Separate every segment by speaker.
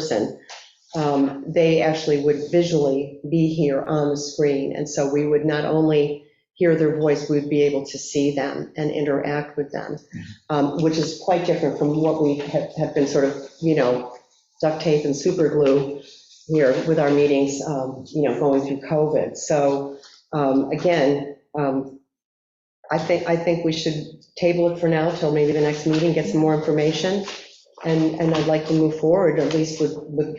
Speaker 1: person, um, they actually would visually be here on the screen. And so we would not only hear their voice, we'd be able to see them and interact with them, um, which is quite different from what we have have been sort of, you know, duct tape and super glue here with our meetings, um, you know, going through COVID. So um, again, um, I think, I think we should table it for now till maybe the next meeting, get some more information. And, and I'd like to move forward, at least with, with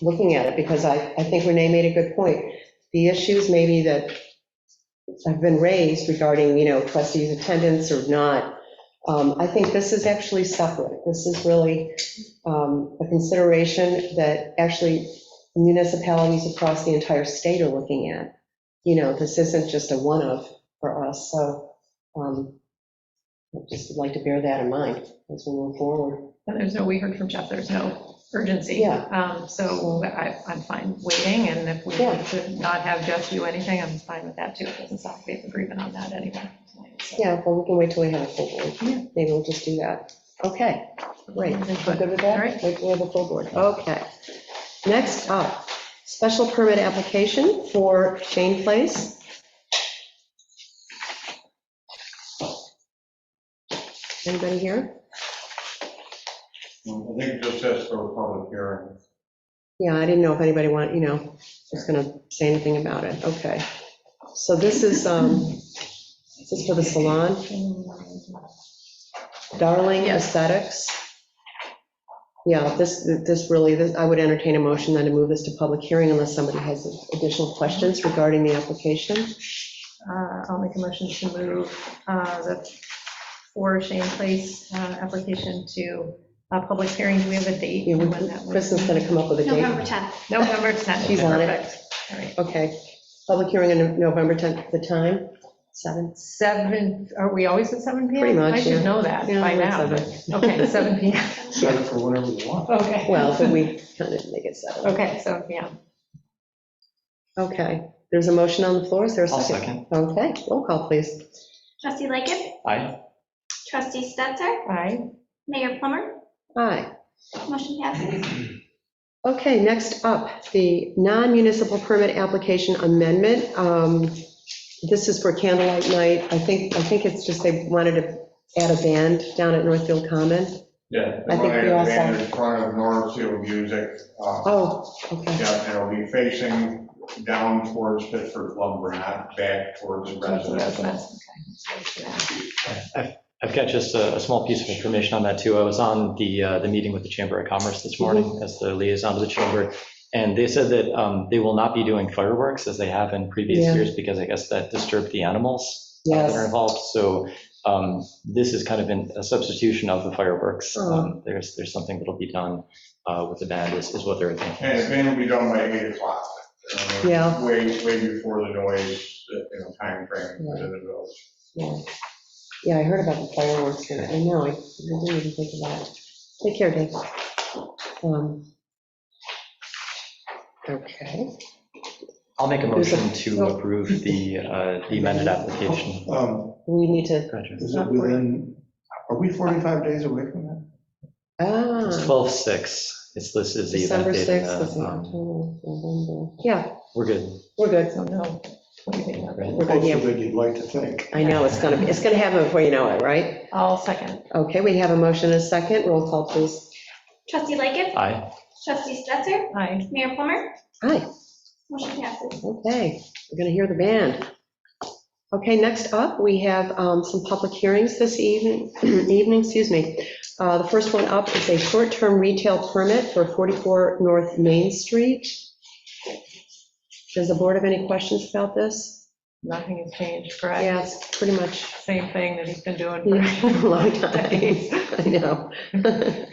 Speaker 1: looking at it, because I, I think Renee made a good point. The issues maybe that have been raised regarding, you know, trustees' attendance or not, um, I think this is actually separate. This is really um, a consideration that actually municipalities across the entire state are looking at. You know, this isn't just a one-off for us, so um, I just would like to bear that in mind as we move forward.
Speaker 2: And there's no, we heard from Jeff, there's no urgency.
Speaker 1: Yeah.
Speaker 2: Um, So I, I'm fine waiting, and if we
Speaker 1: Yeah.
Speaker 2: could not have Jeff do anything, I'm fine with that too. It doesn't sound like we have agreement on that anyway. So-
Speaker 1: Yeah, well, we can wait till we have a full
Speaker 2: Yeah.
Speaker 1: board. Maybe we'll just do that. Okay, great. We're good with
Speaker 2: All
Speaker 1: that?
Speaker 2: right.
Speaker 1: We have a full board. Okay. Next up, special permit application for Shane Place. Anybody here?
Speaker 3: I think it just says for a public hearing.
Speaker 1: Yeah, I didn't know if anybody want, you know, was going to say anything about it. Okay. So this is, um, is this for the salon? Darling
Speaker 2: Yes.
Speaker 1: Aesthetics. Yeah, this, this really, this- I would entertain a motion then to move this to public hearing unless somebody has additional questions regarding the application.
Speaker 2: Uh, I'll make a motion to move uh, the for Shane Place uh, application to a public hearing. Do we have a date?
Speaker 1: Yeah,
Speaker 2: when that
Speaker 1: we-
Speaker 2: would
Speaker 1: Kristen's
Speaker 2: be?
Speaker 1: going to come up with a date.
Speaker 4: November 10th.
Speaker 2: November 10th.
Speaker 1: She's on it.
Speaker 2: Perfect. All right.
Speaker 1: Okay, public hearing on November 10th, the time, 7?
Speaker 2: Seven, are we always at seven PM?
Speaker 1: Pretty much,
Speaker 2: I
Speaker 1: yeah.
Speaker 2: should know that
Speaker 1: Yeah,
Speaker 2: by
Speaker 1: we're at
Speaker 2: now.
Speaker 1: seven.
Speaker 2: Okay, seven PM,
Speaker 3: Set it for whatever you want.
Speaker 2: okay.
Speaker 1: Well, but we kind of make it 7.
Speaker 2: Okay, seven PM.
Speaker 1: Okay, there's a motion on the floor, is there a
Speaker 5: I'll
Speaker 1: second?
Speaker 5: second.
Speaker 1: Okay, roll call, please.
Speaker 4: Trustee Lightgev,
Speaker 5: Aye.
Speaker 4: trustee Stetser,
Speaker 2: Aye.
Speaker 4: Mayor Plummer,
Speaker 1: Aye.
Speaker 4: motion passes.
Speaker 1: Okay, next up, the non-municipal permit application amendment. Um, This is for candlelight night. I think, I think it's just they wanted to add a band down at Northfield Common.
Speaker 3: Yeah.
Speaker 1: I think we all saw-
Speaker 3: In front of Northfield Music. uh,
Speaker 1: Oh, okay,
Speaker 3: Yeah, and it'll be facing down towards Pittsburgh Lumber, not back towards residential.
Speaker 2: Okay.
Speaker 5: I've got just a, a small piece of information on that too. I was on the, uh, the meeting with the Chamber of Commerce
Speaker 1: Mm-hmm.
Speaker 5: this morning as the liaison to the chamber. And they said that, um, they will not be doing fireworks as they have in
Speaker 1: Yeah.
Speaker 5: previous years because I guess that disturbed the animals uh, that
Speaker 1: Yes.
Speaker 5: are involved. So, um, this is kind of an- a substitution of the fireworks.
Speaker 1: Oh.
Speaker 5: Um, There's, there's something that'll be done, uh, with the band is, is what they're
Speaker 3: And it's
Speaker 5: thinking.
Speaker 3: going to be done by 8 o'clock. uh,
Speaker 1: Yeah.
Speaker 3: Way, way before the noise, uh, you know, timeframe
Speaker 1: Right.
Speaker 3: to the village.
Speaker 1: yeah. Yeah, I heard about the fireworks here. I know, I I didn't even think about it. Take care, Dave. Um, Okay,
Speaker 5: I'll make a
Speaker 1: There's a- Oh.
Speaker 5: motion to approve the, uh, the amended application.
Speaker 6: Um,
Speaker 1: we need to,
Speaker 5: Gotcha.
Speaker 6: Is it within, are we 45 days away from that?
Speaker 1: ah,
Speaker 5: It's 12/6. It's listed as the event
Speaker 1: December
Speaker 5: date. in
Speaker 1: 6th,
Speaker 5: the,
Speaker 1: is in
Speaker 5: um,
Speaker 1: October, November. Yeah,
Speaker 5: We're good.
Speaker 1: we're good.
Speaker 2: So no, what do you think?
Speaker 5: right?
Speaker 1: We're good, yeah.
Speaker 6: Closer than you'd like to think.
Speaker 1: I know, it's gonna, be it's gonna happen before you know it, right?
Speaker 2: I'll second.
Speaker 1: Okay, we have a motion and a second, roll call, please.
Speaker 4: Trustee Lightgev,
Speaker 5: Aye.
Speaker 4: trustee Stetser,
Speaker 2: Aye.
Speaker 4: Mayor Plummer,
Speaker 1: Hi,
Speaker 4: motion passes.
Speaker 1: okay, we're gonna hear the band. Okay, next up, we have um, some public hearings this evening, evening, excuse me. Uh, The first one up is a short-term retail permit for 44 North Main Street. Does the board have any questions about this?
Speaker 2: Nothing has changed, correct?
Speaker 1: Yeah, it's pretty much
Speaker 2: Same thing that he's been doing
Speaker 1: Yeah,
Speaker 2: for
Speaker 1: a long time, I know.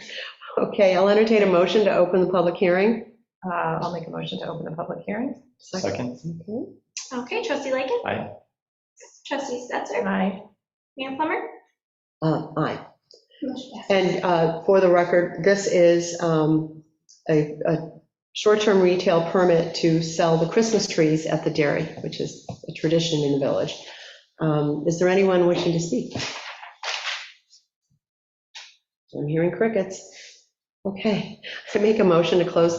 Speaker 1: Okay, I'll entertain a motion to open the public hearing.
Speaker 2: Uh, I'll make a motion to open the public hearing.
Speaker 5: Second.
Speaker 1: Okay.
Speaker 4: Okay, trustee Lightgev.
Speaker 5: Aye.
Speaker 4: Trustee Stetser,
Speaker 2: Aye.
Speaker 4: Mayor Plummer,
Speaker 1: Uh, Aye.
Speaker 4: motion passes.
Speaker 1: And uh, for the record, this is um, a a short-term retail permit to sell the Christmas trees at the dairy, which is a tradition in the village. Um, Is there anyone wishing to speak? I'm hearing crickets. Okay, I make a motion to close